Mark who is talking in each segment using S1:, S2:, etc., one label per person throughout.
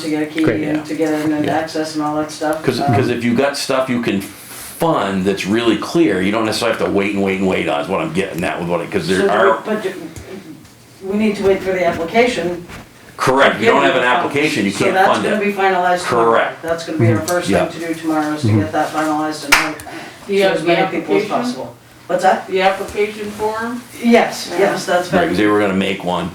S1: to get a key
S2: Great,
S1: and
S2: yeah.
S1: to get in and
S2: Yeah.
S1: access and all that stuff.
S2: Because
S1: Um,
S2: if you've got stuff you can fund that's really clear, you don't necessarily have to wait and wait and wait on, is what I'm getting at with what, because
S1: so
S2: there
S1: do
S2: are,
S1: we- But do- we need to wait for the application.
S2: correct, you don't have an application, you can't
S1: So
S2: fund
S1: that's gonna
S2: it.
S1: be finalized tomorrow.
S2: Correct. Mm-hmm.
S1: That's gonna be our first
S2: Yeah. Mm-hmm.
S1: thing to do tomorrow, is to get that finalized and have
S3: Do you
S1: to
S3: have
S1: as many
S3: the
S1: people as
S3: application?
S1: possible. What's that?
S3: The application form?
S1: Yes,
S3: Yeah.
S1: yes, that's
S2: Right, 'cause
S1: been,
S2: they were gonna make one.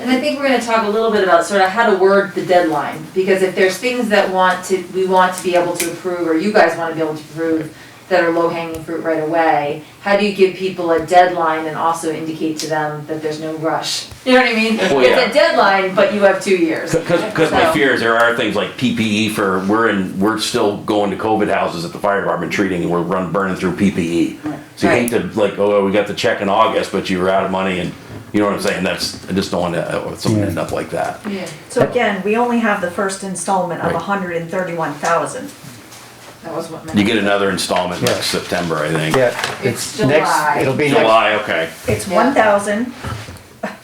S4: And I think we're gonna talk a little bit about sort of how to word the deadline, because if there's things that want to, we want to be able to approve, or you guys wanna be able to approve, that are low hanging fruit right away, how do you give people a deadline and also indicate to them that there's no rush? You know what I mean?
S2: Well, Oh, yeah.
S4: It's a deadline, but you have two years.
S2: Because, because my
S4: So-
S2: fear is there are things like PPE for, we're in, we're still going to COVID houses at the fire department treating, and we're run, burning through PPE. So you hate to, like, oh, we got the check in August, but you were out of money, and, you know what I'm saying, that's, I just don't want to, something to end up like that.
S4: Yeah,
S5: So again, we only have the first installment of
S2: Right.
S5: hundred and thirty-one thousand.
S4: that was what my.
S2: You get another installment next
S6: Yeah.
S2: September, I think.
S6: Yeah,
S4: It's
S6: it's next,
S4: July.
S6: it'll be next,
S2: July, okay.
S5: It's
S4: Yeah.
S5: one thousand,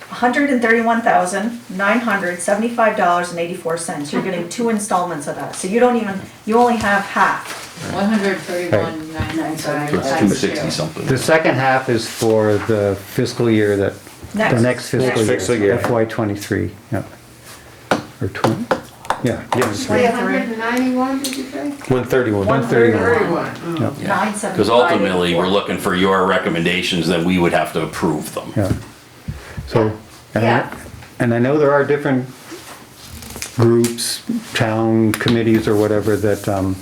S5: hundred and thirty-one thousand, nine hundred, seventy-five dollars and eighty-four cents. You're getting two installments of that, so you don't even, you only have half.
S3: One hundred thirty-one, nine
S2: So It's two sixty something.
S6: the second half is for the fiscal year that, the next fiscal year.
S7: Fiscal year.
S6: FY twenty-three, yeah. Or twenty, yeah,
S8: Three
S6: yeah,
S8: hundred and ninety-one, did you say?
S7: One thirty-one.
S5: One thirty-one,
S3: Thirty-one.
S5: nine seventy-five.
S2: Because ultimately, we're looking for your recommendations, then we would have to approve them.
S6: yeah. So, and
S4: Yeah.
S6: I, and I know there are different groups, town committees or whatever that, um,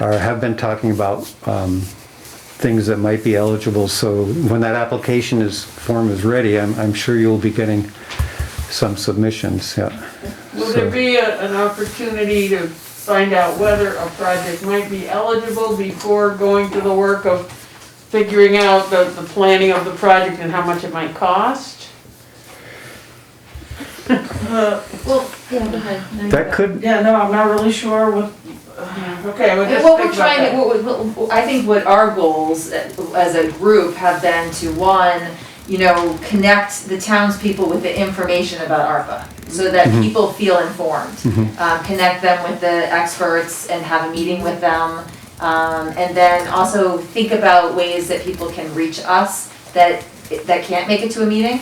S6: are, have been talking about, um, things that might be eligible, so when that application is, form is ready, I'm, I'm sure you'll be getting some submissions, yeah.
S3: Will there be a- an opportunity to find out whether a project might be eligible before going to the work of figuring out the, the planning of the project and how much it might cost?
S4: Well, yeah, go ahead. No, you
S6: That
S4: go.
S6: could,
S1: yeah, no, I'm not really sure what,
S3: Okay, well,
S4: And
S3: just
S4: what
S3: think
S4: we're
S3: about
S4: trying, to-
S3: that.
S4: what, we- what, I think what our goals as a group have been to, one, you know, connect the townspeople with the information about ARPA, so that people feel informed. Um, connect them with the experts and have a meeting with them. Um, and then also think about ways that people can reach us that, that can't make it to a meeting.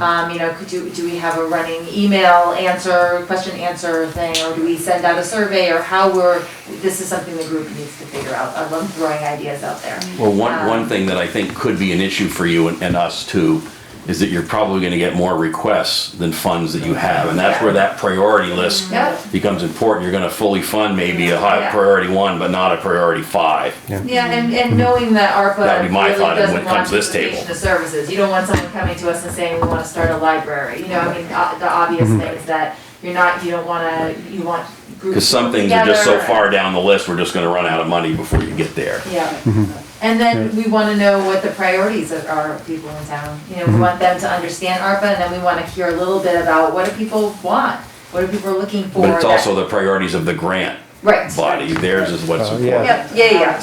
S4: Um, you know, could do, do we have a running email answer, question answer thing, or do we send out a survey, or how we're, this is something the group needs to figure out, I love throwing ideas out there.
S2: Well, one,
S4: Um,
S2: one thing that I think could be an issue for you and, and us too, is that you're probably gonna get more requests than funds that you have, and that's where that priority list
S4: Yep,
S2: becomes important, you're gonna fully fund maybe a high
S4: Yeah.
S2: priority one, but not a priority five.
S4: yeah, and, and knowing that ARPA
S2: That'd be
S4: really
S2: my thought when it
S4: doesn't
S2: comes
S4: want
S2: to this table.
S4: duplication of services, you don't want someone coming to us and saying, we wanna start a library, you know, I mean, o- the obvious
S2: Mm-hmm.
S4: thing is that you're not, you don't wanna, you want groups
S2: Cause some
S4: to
S2: things
S4: work
S2: are just so
S4: together.
S2: far down the list, we're just gonna run out of money before you get there. Mm-hmm.
S4: Yeah, and then we wanna know what the priorities of our people in town, you know,
S2: Mm-hmm.
S4: we want them to understand ARPA, and then we wanna hear a little bit about what do people want? What are people looking for?
S2: But it's
S4: that-
S2: also the priorities of the grant
S4: Right.
S2: body, theirs is what's
S6: Oh, yeah.
S2: important.
S4: Yep, yeah, yeah,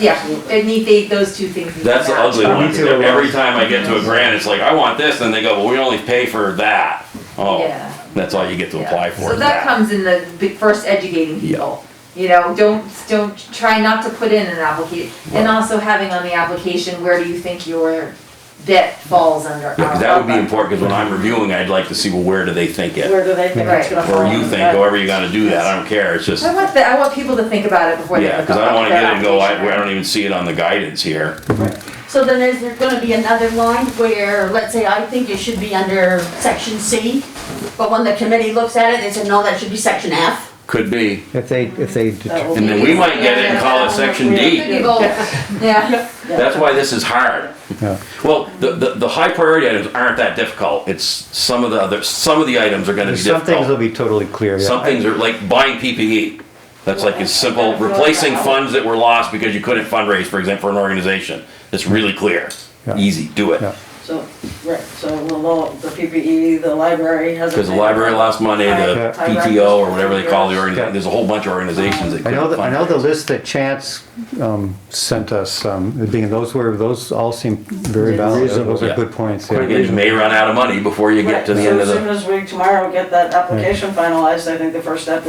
S4: yeah, yeah, they need, they, those two things. need to
S2: That's the
S4: match.
S2: ugly one.
S6: too.
S2: Every time I get to a grant, it's like, I want this, and they go, well, we only pay for that. Oh,
S4: Yeah.
S2: that's all you get to
S4: Yeah.
S2: apply for.
S4: So
S2: is
S4: that comes in the big- first educating
S2: Yeah.
S4: people. You know, don't, don't, try not to put in an application, and also having on the application, where do you think your bit falls under
S2: Yeah, 'cause that would be
S4: ARPA?
S2: important, because when I'm reviewing, I'd like to see, well, where do they think it?
S1: where do they think it's
S4: Right.
S1: gonna fall?
S2: Or you think, however you're gonna do that, I don't care, it's just,
S4: I want the, I want people to think about it before they.
S2: yeah, because I don't wanna get it and go, I, I don't even see it on the guidance here.
S8: So then is there gonna be another line where, let's say, I think it should be under section C, but when the committee looks at it, they say, no, that should be section F?
S2: Could be.
S6: if they, if they, det-
S2: And then we might get it and call it section D.
S4: Yeah,
S2: That's why this is hard.
S6: yeah.
S2: Well, the, the, the high priority items aren't that difficult. It's some of the other, some of the items are gonna be
S6: Some
S2: difficult.
S6: things will be totally clear, yeah.
S2: Some things are like buying PPE. That's like as simple, replacing funds that were lost because you couldn't fundraise, for example, for an organization. It's really clear.
S6: Yeah.
S2: Easy, do it.
S6: Yeah.
S1: So, right, so the law, the PPE, the library has.
S2: Because the library lost money, the
S1: Right.
S2: PTO or whatever they call the
S6: Yeah.
S2: organization, there's a whole bunch of organizations that
S6: I know,
S2: couldn't
S6: the- I know
S2: fund
S6: the
S2: it.
S6: list that Chance um, sent us, um, being those were, those all seem very valid. Those are
S2: Yeah.
S6: good points. yeah.
S2: Again, you may run out of money before you
S1: Right,
S2: get
S1: so
S2: to the end of
S1: as
S2: the.
S1: soon as we tomorrow get that application finalized, I think the first step